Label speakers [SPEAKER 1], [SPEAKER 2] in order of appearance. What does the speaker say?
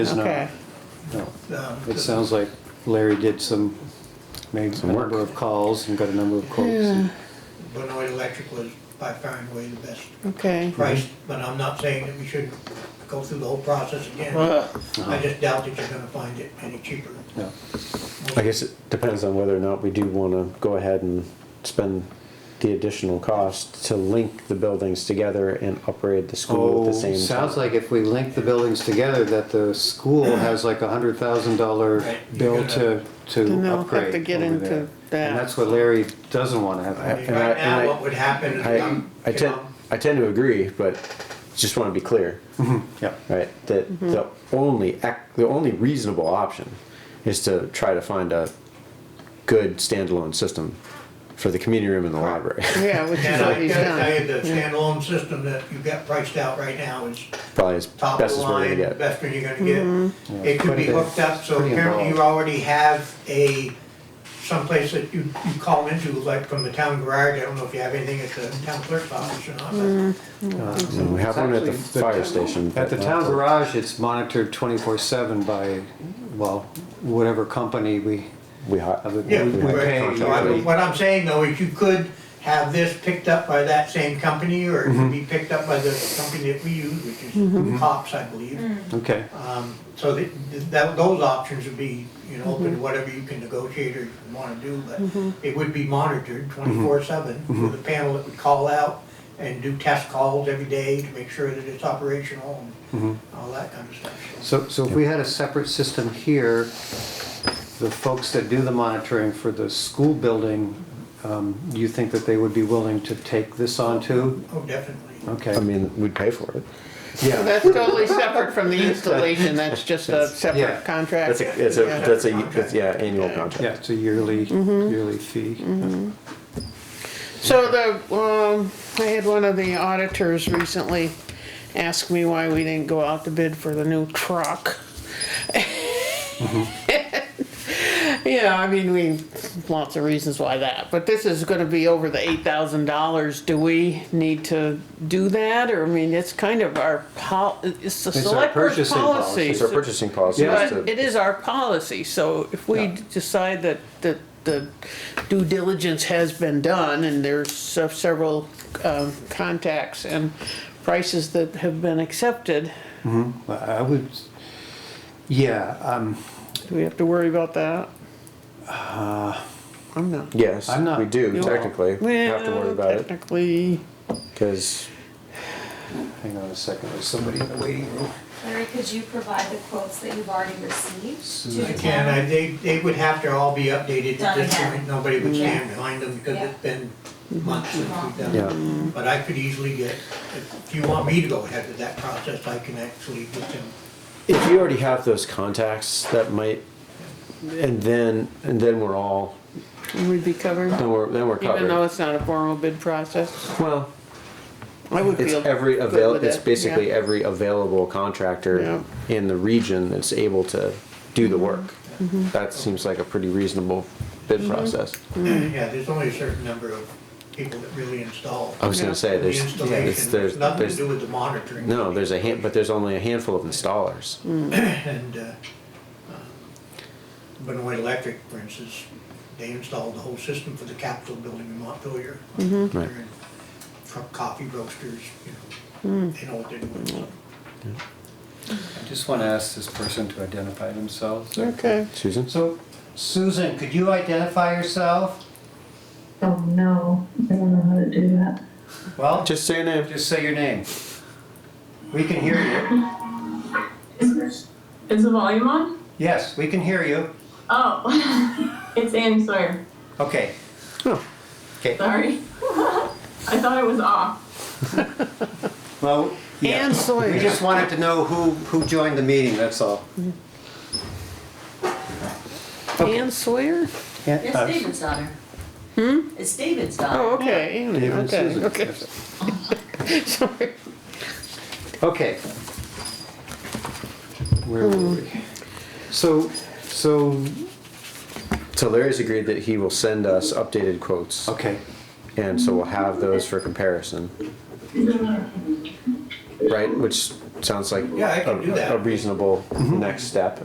[SPEAKER 1] It's
[SPEAKER 2] Okay.
[SPEAKER 1] not, no.
[SPEAKER 3] Um,
[SPEAKER 1] It sounds like Larry did some, made a number of calls and got a number of quotes. and-
[SPEAKER 3] Benoit Electric was by far and away the best
[SPEAKER 2] Okay.
[SPEAKER 3] price,
[SPEAKER 4] Mm-hmm.
[SPEAKER 3] but I'm not saying that we shouldn't go through the whole process again.
[SPEAKER 2] Well,
[SPEAKER 4] uh-huh.
[SPEAKER 3] I just doubt that you're gonna find it any cheaper.
[SPEAKER 1] Yeah.
[SPEAKER 4] I guess it depends on whether or not we do wanna go ahead and spend the additional cost to link the buildings together and upgrade the
[SPEAKER 1] Oh,
[SPEAKER 4] school at the same
[SPEAKER 1] sounds
[SPEAKER 4] time.
[SPEAKER 1] like if we link the buildings together, that the school has like a hundred thousand dollar
[SPEAKER 3] Right, you
[SPEAKER 1] bill
[SPEAKER 3] gotta-
[SPEAKER 1] to,
[SPEAKER 2] Then
[SPEAKER 1] to
[SPEAKER 2] they'll have to
[SPEAKER 1] upgrade
[SPEAKER 2] get
[SPEAKER 1] over
[SPEAKER 2] into
[SPEAKER 1] there.
[SPEAKER 2] that.
[SPEAKER 1] And that's what Larry doesn't wanna
[SPEAKER 3] I
[SPEAKER 1] have.
[SPEAKER 3] mean,
[SPEAKER 4] and I-
[SPEAKER 3] Right
[SPEAKER 4] and I-
[SPEAKER 3] now, what would happen is,
[SPEAKER 4] I,
[SPEAKER 3] um,
[SPEAKER 4] I
[SPEAKER 3] you
[SPEAKER 4] tend,
[SPEAKER 3] know,
[SPEAKER 4] I tend to agree, but just wanna be clear,
[SPEAKER 1] Yeah,
[SPEAKER 4] right? That the only, ac- the only reasonable option is to try to find a good standalone system for the community room and the library.
[SPEAKER 2] yeah, which is
[SPEAKER 3] and
[SPEAKER 2] what
[SPEAKER 3] I
[SPEAKER 2] he's
[SPEAKER 3] gotta tell
[SPEAKER 2] done.
[SPEAKER 3] you, the standalone system that you've got priced out right now is
[SPEAKER 4] Probably as
[SPEAKER 3] top of
[SPEAKER 4] best
[SPEAKER 3] the
[SPEAKER 4] as we're gonna
[SPEAKER 3] line,
[SPEAKER 4] get.
[SPEAKER 3] best that you're gonna get. It could be
[SPEAKER 1] Pretty-
[SPEAKER 3] hooked up, so
[SPEAKER 1] pretty
[SPEAKER 3] apparently you
[SPEAKER 1] involved.
[SPEAKER 3] already have a, someplace that you, you call into, like from the town garage, I don't know if you have anything at the town clerk's office or not, but
[SPEAKER 4] And we have one at
[SPEAKER 1] Actually,
[SPEAKER 4] the
[SPEAKER 1] the-
[SPEAKER 4] fire station.
[SPEAKER 1] at the
[SPEAKER 4] but
[SPEAKER 1] town
[SPEAKER 4] not the-
[SPEAKER 1] garage, it's monitored twenty-four seven by, well, whatever company we,
[SPEAKER 4] We hi-
[SPEAKER 1] have it-
[SPEAKER 3] Yeah,
[SPEAKER 1] we we
[SPEAKER 4] right.
[SPEAKER 1] pay.
[SPEAKER 3] So I
[SPEAKER 1] usually.
[SPEAKER 3] mean, what I'm saying though is you could have this picked up by that same company or it could be picked up by the company that we use, which is Cops, I believe.
[SPEAKER 1] Okay,
[SPEAKER 3] Um, so that, that, those options would be, you know, open to whatever you can negotiate or wanna do, but it would be monitored twenty-four seven with a panel that would call out and do test calls every day to make sure that it's operational and all that kind of stuff.
[SPEAKER 1] so, so if we had a separate system here, the folks that do the monitoring for the school building, um, you think that they would be willing to take this on too?
[SPEAKER 3] Oh, definitely.
[SPEAKER 1] Okay.
[SPEAKER 4] I mean, we'd pay for it.
[SPEAKER 2] So That's totally separate from the installation, that's just a
[SPEAKER 1] Yeah.
[SPEAKER 2] separate contract.
[SPEAKER 4] That's a, it's a,
[SPEAKER 2] Yeah.
[SPEAKER 4] that's a, that's, yeah, annual
[SPEAKER 1] Yeah,
[SPEAKER 4] contract.
[SPEAKER 1] it's a yearly,
[SPEAKER 4] Mm-hmm.
[SPEAKER 1] yearly fee.
[SPEAKER 2] So the, um, I had one of the auditors recently ask me why we didn't go out to bid for the new truck. You know, I mean, we, lots of reasons why that, but this is gonna be over the eight thousand dollars, do we need to do that, or, I mean, it's kind of our pol, it's the
[SPEAKER 1] our
[SPEAKER 2] select board's
[SPEAKER 1] purchasing policy.
[SPEAKER 2] policy.
[SPEAKER 4] It's our purchasing policy.
[SPEAKER 1] Yeah.
[SPEAKER 4] is
[SPEAKER 2] But it
[SPEAKER 4] to-
[SPEAKER 2] is our policy, so if we decide that, that the due diligence has been done and there's se- several um, contacts and prices that have been accepted,
[SPEAKER 1] Well, I would, yeah, um,
[SPEAKER 2] do we have to worry about that?
[SPEAKER 4] Uh,
[SPEAKER 2] I'm not.
[SPEAKER 4] Yes,
[SPEAKER 1] I'm not-
[SPEAKER 4] we do
[SPEAKER 1] no.
[SPEAKER 4] technically. We have to worry
[SPEAKER 2] Well,
[SPEAKER 4] about it
[SPEAKER 2] Technically,
[SPEAKER 4] because
[SPEAKER 1] hang on a second, there's somebody in the waiting room.
[SPEAKER 5] Larry, could you provide the quotes that you've already received to
[SPEAKER 1] Susan.
[SPEAKER 5] the
[SPEAKER 3] I can, I,
[SPEAKER 5] town?
[SPEAKER 3] they, they would have to all be updated at
[SPEAKER 5] Done
[SPEAKER 3] this
[SPEAKER 5] again.
[SPEAKER 3] point, nobody would stand behind them because it's been months since we've done
[SPEAKER 1] Yeah.
[SPEAKER 3] it. But I could easily get, if you want me to go ahead with that process, I can actually get them.
[SPEAKER 4] if you already have those contacts, that might, and then, and then we're all,
[SPEAKER 2] we'd be covered,
[SPEAKER 4] then we're, then we're
[SPEAKER 2] even though
[SPEAKER 4] covered.
[SPEAKER 2] it's not a formal bid process.
[SPEAKER 4] Well,
[SPEAKER 2] I would
[SPEAKER 4] it's
[SPEAKER 2] feel
[SPEAKER 4] every
[SPEAKER 2] good
[SPEAKER 4] avail,
[SPEAKER 2] with
[SPEAKER 4] it's
[SPEAKER 2] it,
[SPEAKER 4] basically
[SPEAKER 2] yeah.
[SPEAKER 4] every available contractor
[SPEAKER 2] Yeah.
[SPEAKER 4] in the region that's able to do the work.
[SPEAKER 2] Mm-hmm.
[SPEAKER 4] That seems like a pretty reasonable bid process.
[SPEAKER 3] Yeah, there's only a certain number of people that really install.
[SPEAKER 4] I was
[SPEAKER 2] Yeah.
[SPEAKER 4] gonna say,
[SPEAKER 3] The
[SPEAKER 4] there's, it's,
[SPEAKER 3] installation,
[SPEAKER 4] there's,
[SPEAKER 3] It's nothing to
[SPEAKER 4] there's
[SPEAKER 3] do with the monitoring.
[SPEAKER 4] No, there's a hand, but there's only a handful of installers.
[SPEAKER 3] And, uh, um, Benoit Electric, for instance, they installed the whole system for the Capitol building in Montpelier.
[SPEAKER 4] Right.
[SPEAKER 3] They're in From coffee roasters, you know, they know what they're doing. so.
[SPEAKER 1] I just want to ask this person to identify themselves.
[SPEAKER 2] Okay.
[SPEAKER 4] Susan?
[SPEAKER 1] So, Susan, could you identify yourself?
[SPEAKER 6] Oh no, I don't know how to do that.
[SPEAKER 1] Well,
[SPEAKER 4] Just say your name.
[SPEAKER 1] just say your name. We can hear you.
[SPEAKER 7] Is the volume on?
[SPEAKER 1] Yes, we can hear you.
[SPEAKER 7] Oh, it's Annie Sawyer.
[SPEAKER 1] Okay.
[SPEAKER 7] Sorry. I thought it was off.
[SPEAKER 1] Well, yeah.
[SPEAKER 2] And Sawyer.
[SPEAKER 1] We just wanted to know who, who joined the meeting, that's all.
[SPEAKER 2] Ann Sawyer?
[SPEAKER 1] Yeah, uh,
[SPEAKER 8] It's David's daughter. Hmm? It's David's
[SPEAKER 2] Oh,
[SPEAKER 8] daughter.
[SPEAKER 2] okay, Ann,
[SPEAKER 1] David and
[SPEAKER 2] okay,
[SPEAKER 1] Susan.
[SPEAKER 2] okay. Sorry.
[SPEAKER 1] Okay. Where were we? So, so,
[SPEAKER 4] So Larry's agreed that he will send us updated quotes,
[SPEAKER 1] okay.
[SPEAKER 4] and so we'll have those for comparison. Right, which sounds like
[SPEAKER 3] Yeah, I can
[SPEAKER 4] a-
[SPEAKER 3] do that.
[SPEAKER 4] a reasonable next step.